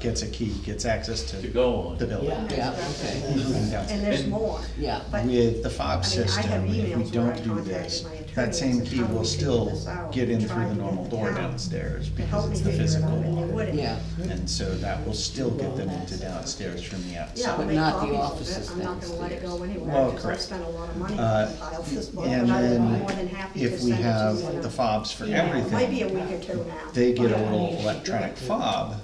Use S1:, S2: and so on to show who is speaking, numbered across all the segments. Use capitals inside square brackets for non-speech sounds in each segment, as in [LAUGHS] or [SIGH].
S1: gets a key, gets access
S2: to
S1: to
S2: go on.
S1: the building.
S3: Yeah, yeah, okay,
S1: Yeah.
S4: And there's
S2: And-
S4: more.
S3: yeah.
S4: But-
S1: With the
S4: I
S1: fob
S4: mean, I have
S1: system, if we
S4: emails where I
S1: don't do
S4: contacted
S1: this,
S4: my attorney
S1: that
S4: and
S1: same
S4: said,
S1: key
S4: "How do
S1: will
S4: we figure
S1: still
S4: this out?"
S1: get in
S4: And
S1: through
S4: tried
S1: the
S4: to get
S1: normal
S4: the
S1: door
S4: town
S1: downstairs
S4: to
S1: because
S4: help
S1: it's
S4: me
S1: the
S4: figure it out,
S1: physical
S4: and they
S1: lock.
S4: wouldn't.
S3: Yeah.
S1: And so that will still get them into downstairs from the
S4: Yeah, I'll
S1: outside.
S3: But
S4: make
S3: not the
S4: copies of
S3: offices
S4: it, I'm not gonna let it go anywhere,
S1: Well,
S4: because I
S1: correct.
S4: spent a lot of money
S1: Uh,
S4: to compile this book,
S1: And
S4: and I'm more than
S1: then
S4: happy to
S1: if we
S4: send it to you. in
S1: have the
S4: a-
S1: fobs for
S4: Yeah,
S1: everything.
S4: Maybe a week or two now.
S1: they get a little electronic fob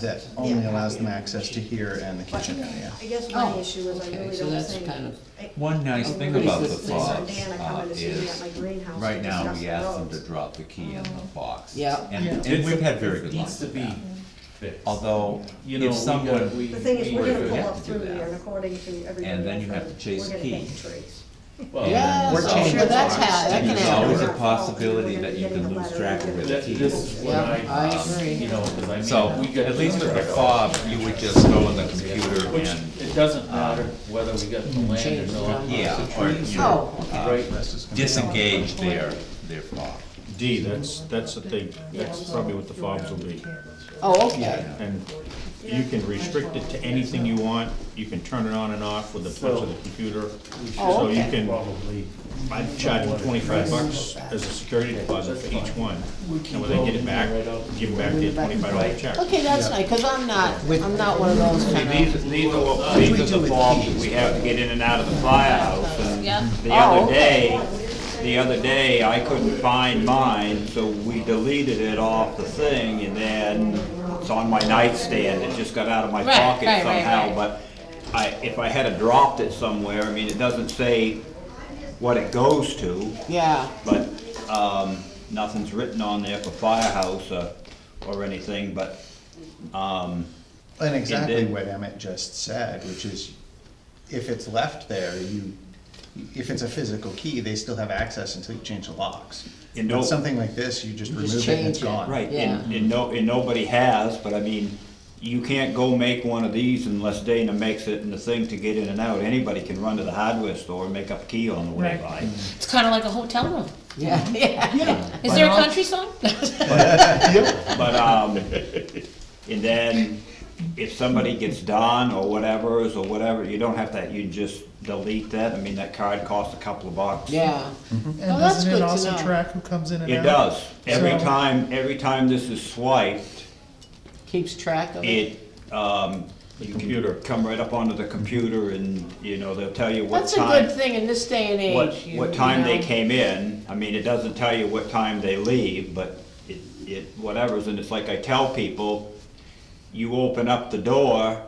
S1: that only allows them access to here and the
S4: But
S1: kitchen area.
S4: I guess my
S3: Oh,
S4: issue is I
S3: okay,
S4: really
S3: so
S4: don't
S3: that's
S4: think.
S3: kind of-
S4: I-
S5: One
S4: Oh,
S5: nice thing
S3: Okay.
S5: about the
S3: Lisa- Lisa
S4: and
S5: fox
S4: Dan are
S5: uh,
S4: coming to see me at
S5: is,
S4: my greenhouse
S5: right
S4: to
S5: now,
S4: discuss
S5: we
S4: the
S5: ask them to
S4: roads.
S5: drop the key in the box.
S3: Yeah.
S5: And,
S2: Yeah.
S5: and we've had very good luck
S2: Needs to
S5: with
S2: be
S5: that.
S2: fixed.
S5: Although,
S2: You know, we
S5: if
S2: got,
S5: someone,
S2: we.
S4: The thing is, we're gonna
S5: we
S4: pull
S5: have
S4: up
S5: to do
S4: through there,
S5: that.
S4: and according to everybody.
S5: And then
S4: else,
S5: you have
S4: I'm-
S5: to chase
S4: we're gonna
S5: key.
S4: hang trees.
S2: well,
S3: Yeah,
S1: We're
S3: I'm
S1: changing
S3: sure that's
S1: ours.
S3: how, that can
S5: There's always
S3: happen.
S5: a possibility that you can lose track of where the
S2: that-
S5: key
S2: This
S5: is.
S2: is what
S3: Yeah,
S2: I.
S3: I
S2: um,
S3: agree.
S2: You know, cause I mean.
S5: So,
S2: we got-
S5: at least with the fob, you would just go on the computer
S2: Which,
S5: and,
S2: it doesn't matter whether we got the land
S3: Change
S2: or
S3: the
S2: not.
S3: number.
S5: Uh, yeah, or you
S3: Oh,
S5: know, uh,
S3: okay.
S2: Right,
S1: This is gonna be-
S5: disengage their, their fob.
S6: D, that's, that's the thing, that's probably what the fobs will be.
S3: Oh, okay,
S6: And you can restrict it to anything you want, you can turn it on and off with the touch of the computer.
S3: Oh,
S6: So you
S3: okay.
S6: can,
S2: probably.
S6: I'd charge them twenty-five bucks as a security deposit for each one. And when they get it back, give them back their twenty-five dollar check.
S3: okay, that's nice, cause I'm not, I'm not one of those kind of,
S6: these are, what- these are the fobs that we have to get in and out of the firehouse. and
S3: yeah,
S6: The
S3: oh,
S6: other
S3: okay.
S6: day, the other day, I couldn't find mine, so we deleted it off the thing, and then it's on my nightstand, it just got out of my
S7: Right,
S6: pocket
S7: right, right,
S6: somehow,
S7: right.
S6: but I, if I had a dropped it somewhere, I mean, it doesn't say what it goes to,
S3: Yeah, [LAUGHS]
S6: but, um, nothing's written on there for firehouse or, or anything, but, um,
S1: And exactly
S6: then-
S1: what Emmett just said, which is, if it's left there, you, if it's a physical key, they still have access until you change the locks.
S6: You
S1: But
S6: know-
S1: something like this, you just
S3: just
S1: remove it and it's
S3: change it.
S1: gone.
S6: Right, and,
S3: Yeah.
S6: and no, and nobody has, but I mean, you can't go make one of these unless Dana makes it and the thing to get in and out. Anybody can run to the hardware store and make up a key on the way
S7: Right.
S6: by.
S7: It's kind of like a hotel room.
S3: yeah, yeah,
S7: Is there a country song?
S6: But, um, and then if somebody gets done or whatever, or whatever, you don't have that, you just delete that. I mean, that card costs a couple of bucks.
S3: yeah.
S8: And
S3: Well, Oh, that's
S8: doesn't
S3: good
S8: it
S3: to
S8: also
S3: know.
S8: track who comes in and out?
S6: It does. Every
S8: So-
S6: time, every time this is swiped,
S3: Keeps track of it.
S6: it, um, you can come right up onto the computer and, you know, they'll tell you what
S3: That's a
S6: time.
S3: good thing in this day and
S6: what,
S3: age. you-
S6: what
S3: you
S6: time they
S3: know.
S6: came in. I mean, it doesn't tell you what time they leave, but it, it, whatever's, and it's like I tell people, you open up the door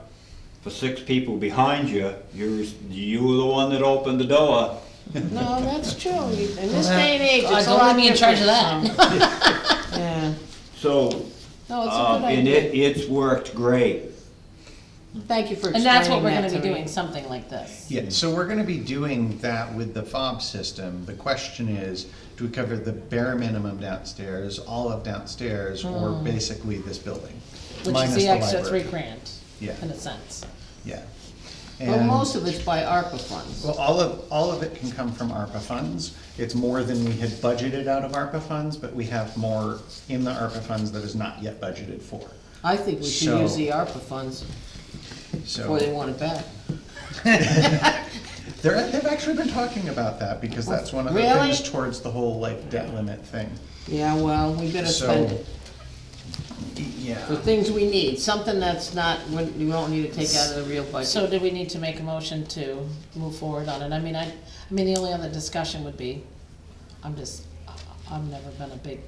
S6: for six people behind you, you're, you were the one that opened the door.
S3: No, that's true, You- in this day and age,
S7: God,
S3: it's a
S7: don't
S3: lot
S7: leave me in charge of
S3: different, so. Yeah,
S6: So,
S3: [LAUGHS] no, it's a
S6: um,
S3: good
S6: and it,
S3: idea,
S6: it's worked great.
S3: [LAUGHS] thank you for explaining
S7: And
S3: that
S7: that's
S3: to
S7: what we're gonna be
S3: me.
S7: doing, something like this.
S1: Yeah, so we're gonna be doing that with the fob system. The question is, do we cover the bare minimum downstairs, all of downstairs, or basically this building?
S7: Hmm. Which
S1: Minus
S7: is the extra
S1: library.
S7: three grand,
S1: Yeah.
S7: in a sense.
S1: Yeah.
S3: Well,
S1: And-
S3: most of it's by ARPA funds.
S1: Well, all of, all of it can come from ARPA funds. It's more than we had budgeted out of ARPA funds, but we have more in the ARPA funds that is not yet budgeted for.
S3: I think we should
S1: So-
S3: use the ARPA funds before they
S1: So,
S3: want it back.
S1: they're, they've actually been talking about that, because that's one of the
S3: Really?
S1: things towards the whole like debt limit thing.
S3: Yeah, well, we better spend
S1: So,
S3: it for
S1: yeah,
S3: things we need, something that's not, we we won't need to take out of the real
S7: So
S3: budget.
S7: do we need to make a motion to move forward on it? I mean, I, I mean, the only other discussion would be, I'm just, I- I've never been a big,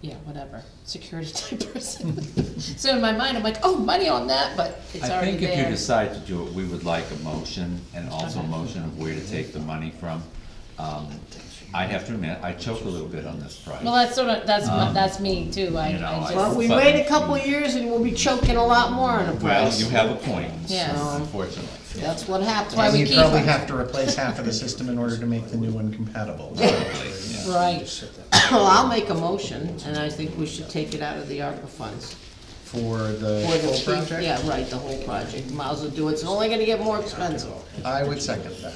S7: yeah, whatever, security [LAUGHS]
S3: [LAUGHS]
S7: type person. So in my mind, I'm like, oh, money on that, but it's
S5: I
S7: already
S5: think if you
S7: there.
S5: decide to do it, we would like a motion, and also a
S7: Okay.
S5: motion of where to take the money from. Um, I have to admit, I choked a little bit on this price.
S7: Well, that's sort of, that's, my- that's me too,
S5: Uh-huh.
S7: I,
S5: you know,
S7: I
S5: I-
S3: Well,
S7: just,
S3: we
S5: but-
S3: wait a couple years and we'll be choking a lot more on the
S5: Well, you
S3: price.
S5: have a point,
S7: Yeah.
S5: unfortunately.
S3: That's what happens.
S7: why
S1: and
S7: we
S1: you
S7: keep
S1: probably
S7: them.
S1: have to replace half of the system in order to make the new one compatible.
S7: right,
S3: [COUGHS] Well, I'll make a motion, and I think we should take it out of the ARPA funds.
S1: For
S3: For
S1: the
S3: the
S1: whole
S3: chief,
S1: project,
S3: yeah, right, the whole project, might as well do it, it's only gonna get more expensive.
S1: I would second that.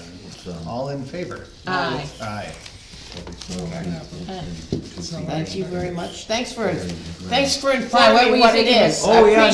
S1: All in favor?
S7: aye.
S1: Aye.
S3: Thank you very much, thanks for, thanks for
S7: Why, what were
S3: informing
S7: you
S3: what it
S7: thinking?
S3: is. I
S6: Oh, yeah,